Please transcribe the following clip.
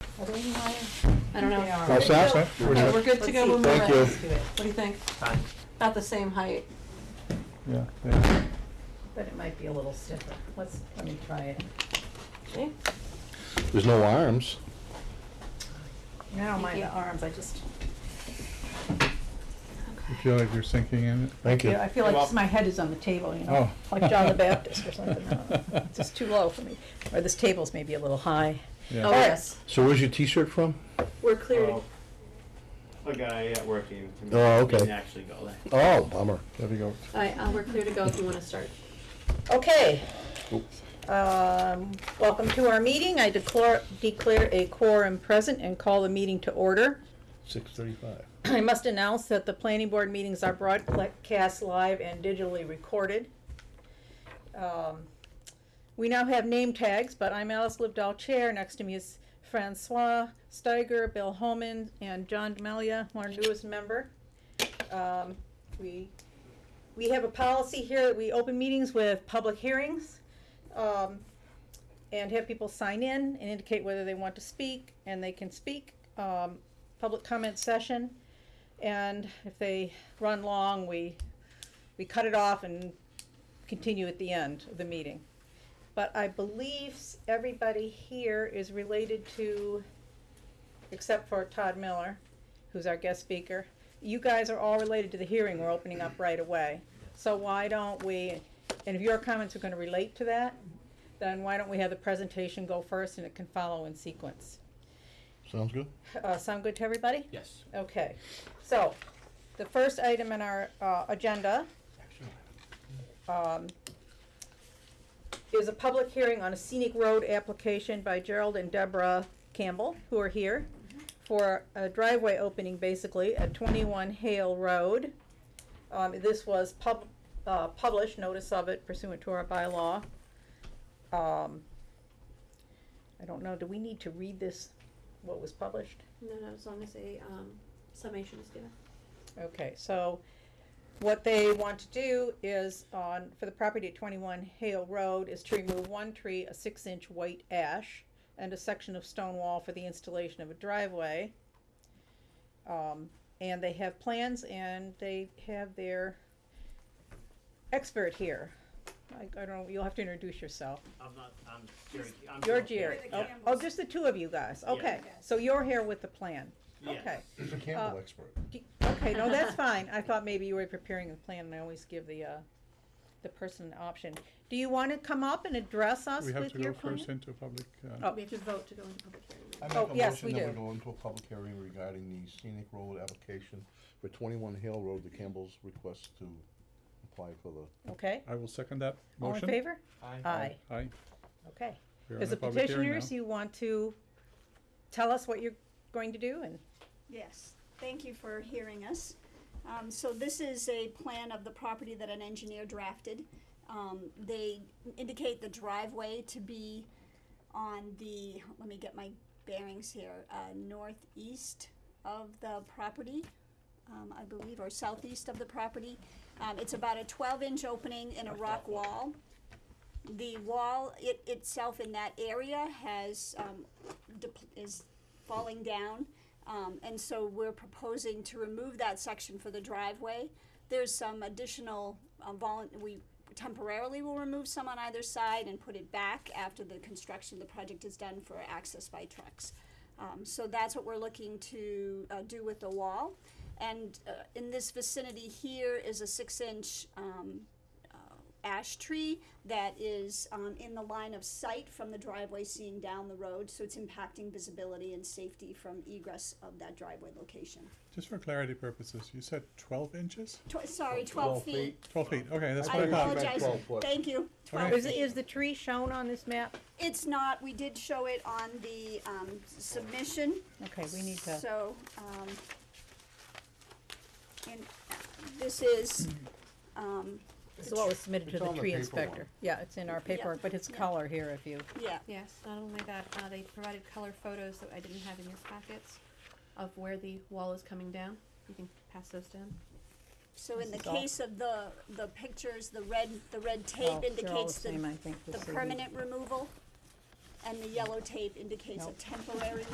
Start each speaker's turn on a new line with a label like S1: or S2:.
S1: Are they in line?
S2: I don't know.
S1: They are.
S3: That's that, right?
S1: No, We're good to go when we're
S3: Thank
S1: ready.
S3: you.
S1: Let's do it. What do you think?
S4: Fine.
S1: About the same height.
S3: Yeah, yeah.
S1: But it might be a little stiffer. Let's, let me try it. See?
S3: There's no arms.
S1: I don't
S2: mind
S1: mind
S2: the
S1: the arms, I just,
S3: You feel like you're sinking in it?
S4: Thank
S1: I feel like
S4: Well-
S1: just my head is on the table, you know,
S3: Oh.
S1: like John the Baptist or something. I don't know. It's just too low for me. Or this table's maybe a little high.
S3: Yeah.
S2: Oh,
S1: All right.
S2: yes,
S3: So where's your T-shirt from?
S2: we're cleared.
S4: Well, Oh. A guy at work gave it to me.
S3: Oh,
S4: He Didn't
S3: okay.
S4: actually go there.
S3: Oh, bummer. There we go.
S2: All right, uh, we're clear to go if you wanna start.
S1: Okay. Um, Welcome to our meeting. I declare, declare a quorum present and call the meeting to order.
S3: Six thirty-five.
S1: I must announce that the planning board meetings are broadcast live and digitally recorded. Um, We now have name tags, but I'm Alice Livedall Chair. Next to me is Francois Steiger, Bill Holman, and John Demelia, our newest member. Um, We, we have a policy here that we open meetings with public hearings. um, And have people sign in and indicate whether they want to speak, and they can speak. Um, Public comment session. And if they run long, we, we cut it off and continue at the end of the meeting. But I believe s- everybody here is related to, except for Todd Miller, who's our guest speaker. You guys are all related to the hearing we're opening up right away. So why don't we, and if your comments are gonna relate to that, then why don't we have the presentation go first and it can follow in sequence?
S3: Sounds good.
S1: Uh, sound good to everybody?
S4: Yes.
S1: Okay, so, the first item in our, uh, agenda, um, is a public hearing on a scenic road application by Gerald and Deborah Campbell, who are here, for a driveway opening basically at twenty-one Hale Road. Um, this was pub, uh, published, notice of it pursuant to our bylaw. Um, I don't know, do we need to read this, what was published?
S2: No, no, as long as a, um, summation is given.
S1: Okay, so what they want to do is on, for the property at twenty-one Hale Road, is to remove one tree, a six-inch white ash, and a section of stone wall for the installation of a driveway. Um, and they have plans and they have their expert here. I, I don't know, you'll have to introduce yourself.
S4: I'm not, I'm Jerry. I'm
S1: You're Jerry.
S4: Jerry. Yeah.
S1: Oh, oh, just the two of you guys,
S4: Yeah.
S1: okay. So you're here with the plan,
S4: Yeah.
S1: okay.
S3: He's a
S1: Campbell
S3: expert.
S1: Do- Okay, no, that's fine. I thought maybe you were preparing the plan and I always give the, uh, the person an option. Do you wanna come up and address us
S3: We have
S1: with
S3: to
S1: your
S3: go
S1: plan?
S3: first into public, uh,
S1: Oh.
S2: We have to vote to go into public hearing.
S5: I
S1: Oh,
S5: make a
S1: yes, we
S5: motion that we
S1: do.
S5: go into a public hearing regarding the scenic road application for twenty-one Hale Road, the Campbell's request to apply for the,
S1: Okay,
S3: I will second that
S1: all in
S3: motion.
S1: favor?
S4: Aye.
S1: Aye,
S3: Aye.
S1: okay.
S3: We're in
S1: As
S3: the
S1: a
S3: public hearing
S1: petitioner,
S3: now.
S1: you want to tell us what you're going to do and,
S6: Yes, thank you for hearing us. Um, so this is a plan of the property that an engineer drafted. Um, they indicate the driveway to be on the, let me get my bearings here, uh, northeast of the property, um, I believe, or southeast of the property. Um, it's about a twelve inch opening in a rock wall. The wall it itself in that area has, um, depl- is falling down. Um, and so we're proposing to remove that section for the driveway. There's some additional, um, volun, we temporarily will remove some on either side and put it back after the construction of the project is done for access by trucks. Um, so that's what we're looking to, uh, do with the wall. And, uh, in this vicinity here is a six-inch, um, uh, ash tree that is um, in the line of sight from the driveway seen down the road, so it's impacting visibility and safety from egress of that driveway location.
S3: Just for clarity purposes, you said twelve inches?
S6: Tw- sorry, 12 feet.
S3: Twelve feet, okay, that's
S5: I
S6: I
S3: what I thought.
S5: apologize.
S6: apologize.
S5: 12 foot.
S6: Thank you. 12
S1: is,
S6: feet.
S1: is the tree shown on this map?
S6: It's not, we did show it on the um, submission,
S1: Okay, we need to,
S6: so, um, and this is, um,
S1: this is what was submitted to
S5: It's
S1: the
S5: on the
S1: tree
S5: paperwork.
S1: inspector. Yeah, it's in our paperwork, but it's
S6: yeah.
S1: color here if you,
S6: yeah,
S2: Yes, not only that, uh, they provided color photos that I didn't have in your packets of where the wall is coming down. You can pass those down.
S6: so in the
S1: This is all-
S6: case of the, the pictures, the red, the red
S1: oh,
S6: tape
S1: they're all the
S6: indicates the
S1: same, I think.
S6: the
S1: this is-
S6: permanent removal, and the yellow tape indicates a
S1: Nope.
S6: temporary